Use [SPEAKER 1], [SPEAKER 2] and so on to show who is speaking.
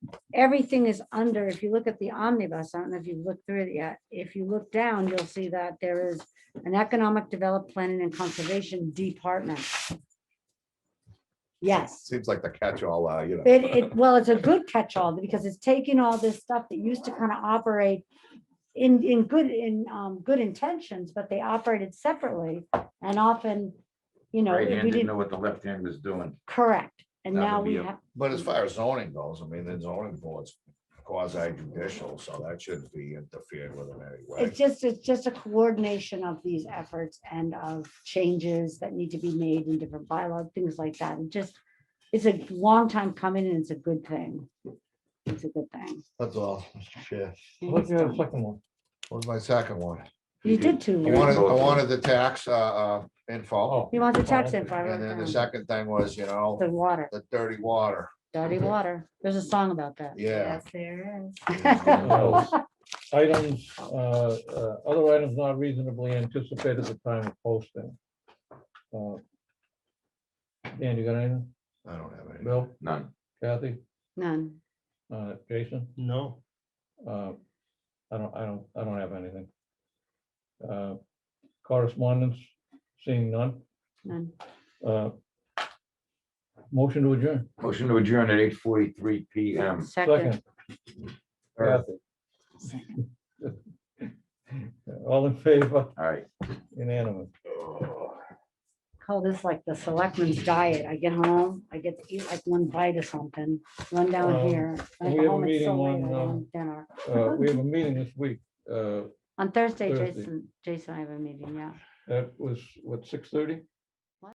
[SPEAKER 1] everything is under, if you look at the omnibus, I don't know if you've looked through it yet, if you look down, you'll see that there is an economic development planning and conservation department. Yes.
[SPEAKER 2] Seems like the catch-all, uh, you know.
[SPEAKER 1] It, it, well, it's a good catch-all because it's taking all this stuff that used to kind of operate in, in good, in, um, good intentions, but they operated separately and often, you know,
[SPEAKER 3] Right
[SPEAKER 1] if
[SPEAKER 3] hand
[SPEAKER 1] we
[SPEAKER 3] didn't know
[SPEAKER 1] didn't,
[SPEAKER 3] what the left hand was doing.
[SPEAKER 1] correct. And
[SPEAKER 3] That would
[SPEAKER 1] now
[SPEAKER 3] be
[SPEAKER 1] we
[SPEAKER 3] a-
[SPEAKER 1] have,
[SPEAKER 2] But as far as zoning goes, I mean, the zoning board's quasi judicial, so that shouldn't be interfered with in any way.
[SPEAKER 1] it's just, it's just a coordination of these efforts and of changes that need to be made in different bylaw, things like that. And just, it's a long time coming and it's a good thing. It's a good thing.
[SPEAKER 2] That's all, Mr. Chair.
[SPEAKER 1] And it's done.
[SPEAKER 4] second one.
[SPEAKER 2] What was my second one?
[SPEAKER 1] You did too.
[SPEAKER 2] I wanted, I wanted the tax, uh, uh,
[SPEAKER 4] Oh.
[SPEAKER 2] info.
[SPEAKER 1] You want the tax info. I
[SPEAKER 2] And
[SPEAKER 1] wrote
[SPEAKER 2] then the
[SPEAKER 1] down.
[SPEAKER 2] second thing was, you know,
[SPEAKER 1] The water.
[SPEAKER 2] the dirty water.
[SPEAKER 1] Dirty water. There's a song about that.
[SPEAKER 2] Yeah.
[SPEAKER 1] there is.
[SPEAKER 4] Items, uh, uh, other items not reasonably anticipated at the time of posting. Uh, Dan, you got anything?
[SPEAKER 2] I don't have any.
[SPEAKER 4] Bill,
[SPEAKER 3] None.
[SPEAKER 4] Kathy,
[SPEAKER 1] None.
[SPEAKER 4] uh, Jason?
[SPEAKER 5] No,
[SPEAKER 4] Uh, I don't, I don't, I don't have anything. Uh, Correspondence, seeing none.
[SPEAKER 1] None.
[SPEAKER 4] Uh, Motion to adjourn.
[SPEAKER 3] Motion to adjourn at eight forty-three PM.
[SPEAKER 1] Second.
[SPEAKER 4] Second. Kathy. All in favor,
[SPEAKER 3] All right.
[SPEAKER 4] unanimous.
[SPEAKER 1] Call Oh, this like the selectman's diet. I get home, I get to eat like one bite of something, run down
[SPEAKER 4] Um,
[SPEAKER 1] here. I
[SPEAKER 4] we
[SPEAKER 1] get
[SPEAKER 4] have a
[SPEAKER 1] home, it's so
[SPEAKER 4] meeting
[SPEAKER 1] late, I
[SPEAKER 4] on,
[SPEAKER 1] don't
[SPEAKER 4] um,
[SPEAKER 1] eat dinner.
[SPEAKER 4] Uh, We have a meeting this week. Uh,
[SPEAKER 1] On Thursday,
[SPEAKER 4] Thursday.
[SPEAKER 1] Jason, Jason, I have a meeting, yeah.
[SPEAKER 4] That was, what, six thirty?